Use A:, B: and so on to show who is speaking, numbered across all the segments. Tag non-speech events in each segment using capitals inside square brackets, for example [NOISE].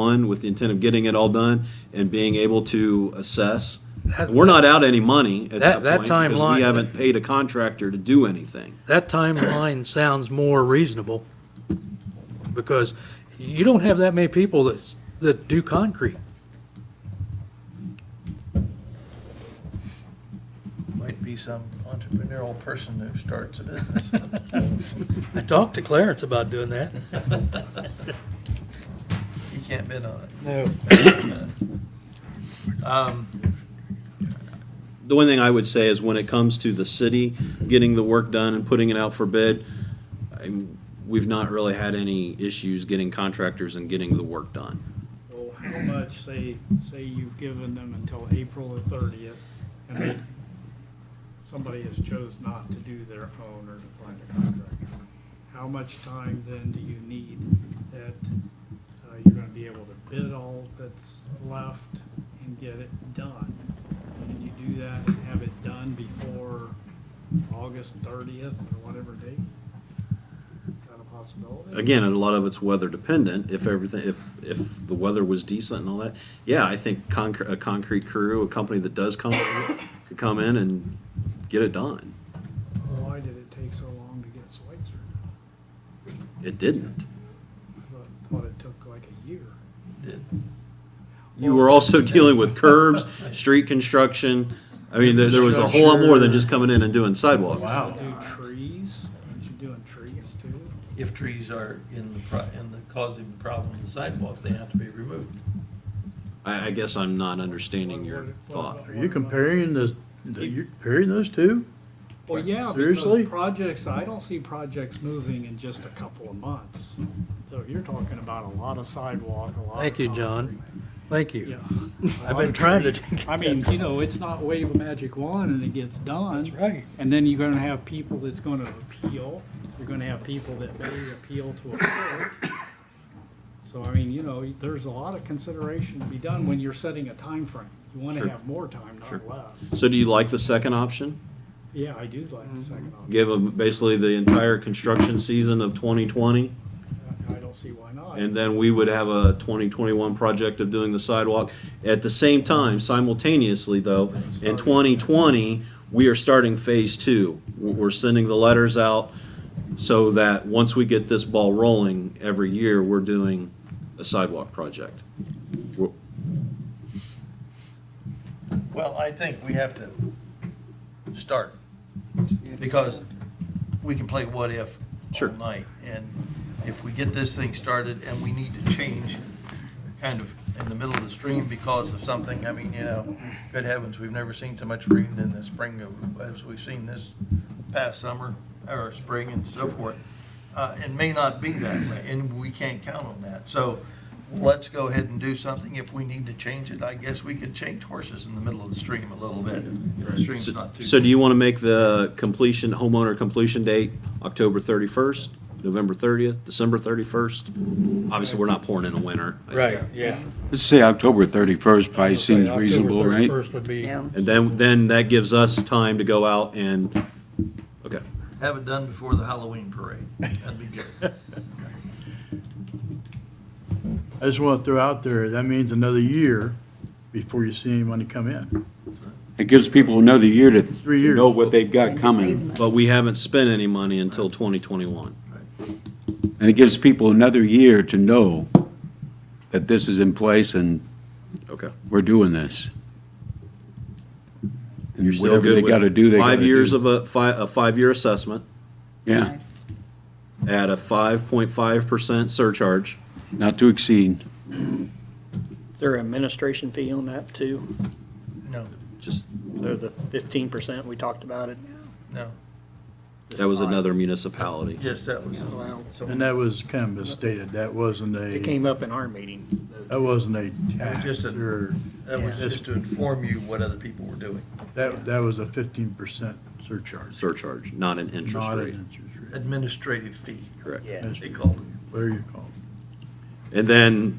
A: one with the intent of getting it all done and being able to assess.
B: That-
A: We're not out any money at that
B: That- that
A: point because we
B: timeline-
A: haven't paid a contractor to do anything.
B: That timeline sounds more reasonable, because you don't have that many people that, that do concrete.
C: Might be some entrepreneurial person who starts a business.
B: [LAUGHS] I talked to Clarence about doing that.
C: You can't bid on it. Um,
B: No.
C: [COUGHS]
A: The one thing I would say is when it comes to the city getting the work done and putting it out for bid, I'm- we've not really had any issues getting contractors and getting the work done.
D: Well, how much, say, say you've given them until April the thirtieth, and then somebody has chose not to do their own or to find a contractor? How much time then do you need that uh, you're gonna be able to bid all that's left and get it done? Can you do that and have it done before August thirtieth or whatever date? Is that a possibility?
A: again, and a lot of it's weather dependent. If everything, if if the weather was decent and all that, yeah, I think concre- a concrete crew, a company that does concrete, could come in and get it done.
D: Why did it take so long to get Switzer?
A: It didn't.
D: Thought- Thought it took like a year.
C: Did-
A: You were also dealing with curbs, street construction. I mean, there, there was a whole lot more than just coming in and doing sidewalks.
C: Wow.
D: Do trees, aren't you doing trees too?
C: If trees are in the, pro- in the, causing the problem with the sidewalks, they have to be removed.
A: I, I guess I'm not understanding your thought.
E: Are you comparing the, the- you're comparing those two?
D: Well, yeah, because
E: Seriously?
D: projects, I don't see projects moving in just a couple of months. So you're talking about a lot of sidewalk, a lot of.
B: Thank you, John.
D: concrete.
B: Thank
D: Yeah.
B: you.
D: A
B: I've
D: lot
B: been
D: of
B: trying to.
D: trees.
B: [LAUGHS]
D: I mean, you know, it's not wave a magic wand and it gets done.
B: That's right.
D: And then you're gonna have people that's gonna appeal, you're gonna have people that may appeal to a court. So, I mean, you know, there's a lot of consideration to be done when you're setting a time frame. You wanna
A: Sure.
D: have more time,
A: Sure.
D: not less.
A: So do you like the second option?
D: Yeah, I do like the second
B: Mm-hmm.
D: option.
A: Give them basically the entire construction season of 2020?
D: I I don't see why not.
A: And then we would have a 2021 project of doing the sidewalk. At the same time, simultaneously though, in 2020, we are starting phase two. We're we're sending the letters out so that once we get this ball rolling, every year, we're doing a sidewalk project. We're-
C: Well, I think we have to start, because we can play what if all
A: Sure.
C: night. And if we get this thing started and we need to change kind of in the middle of the stream because of something, I mean, you know, good heavens, we've never seen so much rain in the spring of- as we've seen this past summer, or spring and so forth. Uh, It may not be that way, and we can't count on that. So let's go ahead and do something. If we need to change it, I guess we could change horses in the middle of the stream a little bit. The stream's
A: So
C: not too.
A: so do you want to make the completion, homeowner completion date October 31st, November 30th, December 31st? Obviously, we're not pouring in the winter.
B: yeah.
F: Let's say October 31st probably seems reasonable, right?
B: First would be,
G: Yeah,
A: And then, then that gives us time to go out and, okay.
C: Have it done before the Halloween parade. That'd be good.
E: I just want to throw out there, that means another year before you see anyone to come in.
F: It gives people another year to
E: Three years.
F: know what they've got
G: and save
F: coming.
G: money.
A: But we haven't spent any money until 2021.
F: And it gives people another year to know that this is in place and
A: Okay.
F: we're doing this. And
A: You're still
F: whatever they
A: good with
F: got to do, they got to do.
A: Five years of a, fi- a five-year assessment
F: Yeah,
A: at a 5.5% surcharge.
F: not to exceed.
H: Is there an administration fee on that too?
C: [LAUGHS] No,
A: Just,
H: Or the fifteen percent we talked about it?
C: no.
A: that was another municipality.
C: Yes, that was.
H: Well,
E: And that was kind of misstated, that wasn't a,
H: It came up in our meeting.
E: that wasn't a
C: Just
E: tax
C: a-
E: or,
C: That was
E: Yeah.
C: just to inform you what other people were doing.
E: that, that was a fifteen percent surcharge,
A: Surcharge, not an interest
E: not an
A: rate.
E: interest rate.
C: Administrative fee,
A: Correct.
H: Yeah.
C: they called it.
E: What are you calling
A: And then,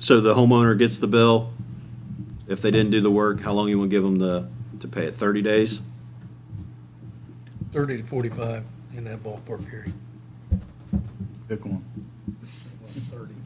A: so the homeowner gets the bill. If they didn't do the work, how long you want to give them to, to pay it? 30 days?
B: thirty to forty-five in that ballpark area.
E: it? Pick one.
D: Thirty